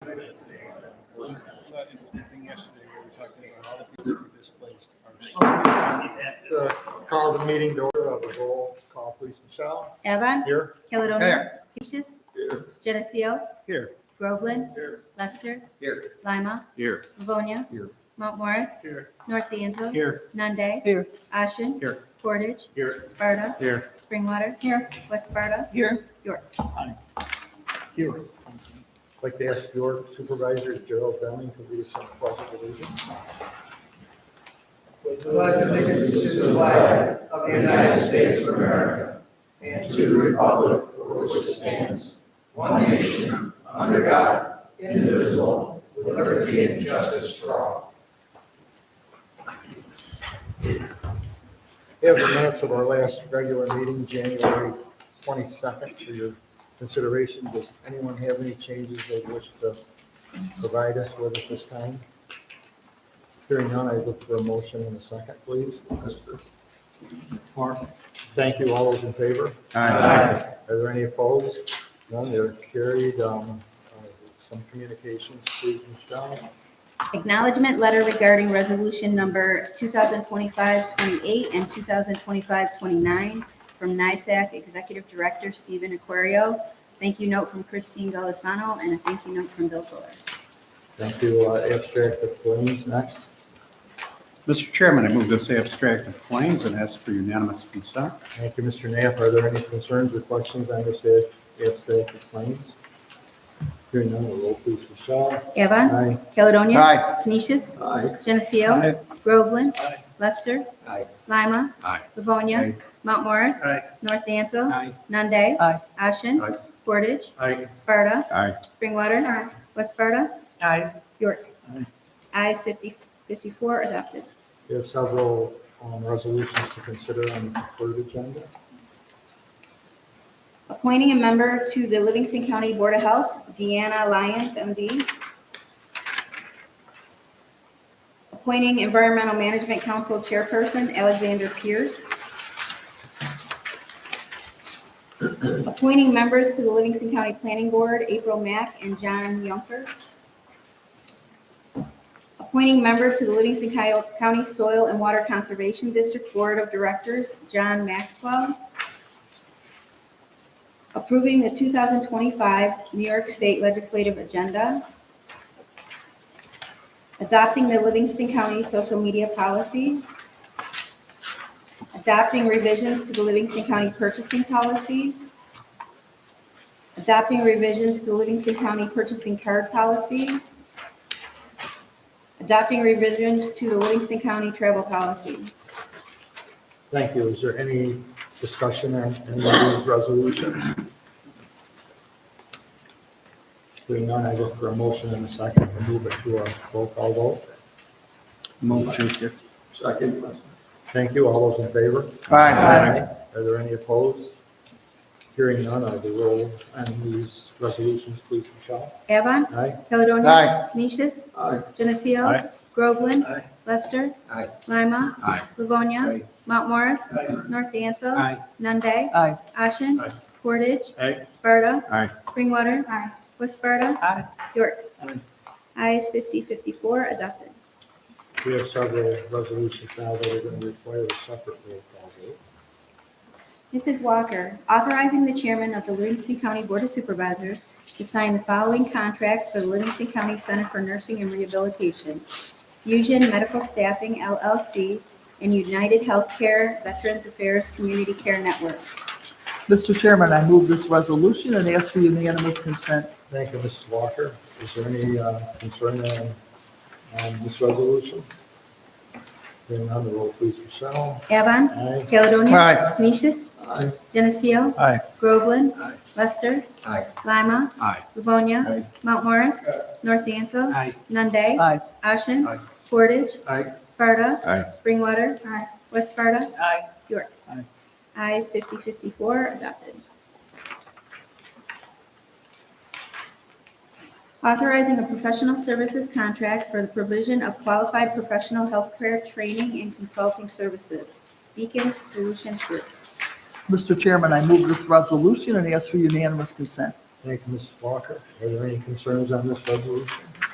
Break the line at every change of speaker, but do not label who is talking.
Board meeting to order of Uh, the roll call, please, Michelle.
Evan,
Here.
Caledonia, Canisius,
Here.
Geneseo,
Here.
Groveland,
Here.
Lester,
Here.
Lima,
Here.
Livonia,
Here.
Mount Morris,
Here.
North Dansville,
Here.
Nunde,
Here.
Ashen,
Here.
Portage,
Here.
Sparta,
Here.
Springwater, here, West Sparta,
Here.
York.
Here. I'd Like to ask your supervisor Gerald Deming to lead us in the pledge of allegiance.
pledge allegiance to the flag of the United States of America and to the republic for which it stands, one nation, under God, indivisible, with liberty and justice for all.
We have the minutes of our last regular meeting, January 22nd, for your consideration. Does anyone have any changes they wish to provide us with at this time? Hearing none, I look for a motion in a second, please. Thank you. All those in favor? Aye. Are there any opposed? None, they're carried. Um, uh, Some communications, please, Michelle.
Acknowledgement letter regarding resolution number 2025-28 and 2025-29 from NISAC Executive Director Stephen Aquario. Thank you note from Christine Golisano and a thank you note from Bill Fuller.
Thank you. Uh, Abstract of claims next.
Mr. Chairman, I move this abstract of claims and ask for unanimous consent.
Thank you, Mr. Knapp. Are there any concerns or questions on this abstract of claims? Hearing none, will roll please, Michelle.
Evan,
Aye.
Caledonia.
Aye.
Canisius,
Aye.
Geneseo.
Aye.
Groveland. Lester.
Aye.
Lima.
Aye.
Livonia.
Aye.
Mount Morris.
Aye.
North Dansville.
Aye.
Nunde.
Aye.
Ashen.
Aye.
Portage.
Aye.
Sparta.
Aye.
Springwater. West Sparta.
Aye.
York. Ayes 50 54 adopted.
We have several um, resolutions to consider on the preferred agenda.
Appointing a member to the Livingston County Board of Health, Deanna Lyons, MD. Appointing Environmental Management Council Chairperson, Alexander Pierce. Appointing members to the Livingston County Planning Board, April Mack and John Yonker. Appointing member to the Livingston County Soil and Water Conservation District Board of Directors, John Maxwell approving the 2025 New York State Legislative Agenda, adopting the Livingston County Social Media Policy, adopting revisions to the Livingston County Purchasing Policy, adopting revisions to the Livingston County Purchasing Card Policy, adopting revisions to the Livingston County Travel Policy.
Thank you. Is there any discussion on any of these resolutions? Hearing none, I look for a motion in a second to move it to a roll call vote.
Move Schuster.
Thank you. All those in favor?
Aye.
Are there any opposed? Hearing none, I will roll on these resolutions, please, Michelle.
Avon,
Aye.
Caledonia.
Aye.
Canisius.
Aye.
Geneseo.
Aye.
Groveland.
Aye.
Lester.
Aye.
Lima.
Aye.
Livonia.
Aye.
Mount Morris.
Aye.
North Dansville.
Aye.
Nunde.
Aye.
Ashen.
Aye.
Portage.
Aye.
Sparta.
Aye.
Springwater. West Sparta.
Aye.
York.
Aye.
Ayes 54 adopted.
We have several resolutions now that are going to require a separate roll call vote.
Mrs. Walker, authorizing the chairman of the Livingston County Board of Supervisors to sign the following contracts for the Livingston County Center for Nursing and Rehabilitation, Fusion Medical Staffing LLC, and United Healthcare Veterans Affairs Community Care Networks.
Mr. Chairman, I move this resolution and ask for unanimous consent.
Thank you, Mrs. Walker. Is there any uh, concern on on this resolution? Hearing none, the roll, please, Michelle.
Avon,
Aye.
Caledonia.
Aye.
Canisius,
Aye.
Geneseo.
Aye.
Groveland.
Aye.
Lester.
Aye.
Lima.
Aye.
Livonia.
Aye.
Mount Morris. North Dansville.
Aye.
Nunde.
Aye.
Ashen.
Aye.
Portage.
Aye.
Sparta.
Aye.
Springwater. West Sparta.
Aye.
York.
Aye.
Ayes 54 adopted. Authorizing a professional services contract for the provision of qualified professional healthcare training and consulting services. Beacon Solutions Group.
Mr. Chairman, I move this resolution and ask for unanimous consent.
Thank you, Mrs. Walker. Are there any concerns on this resolution?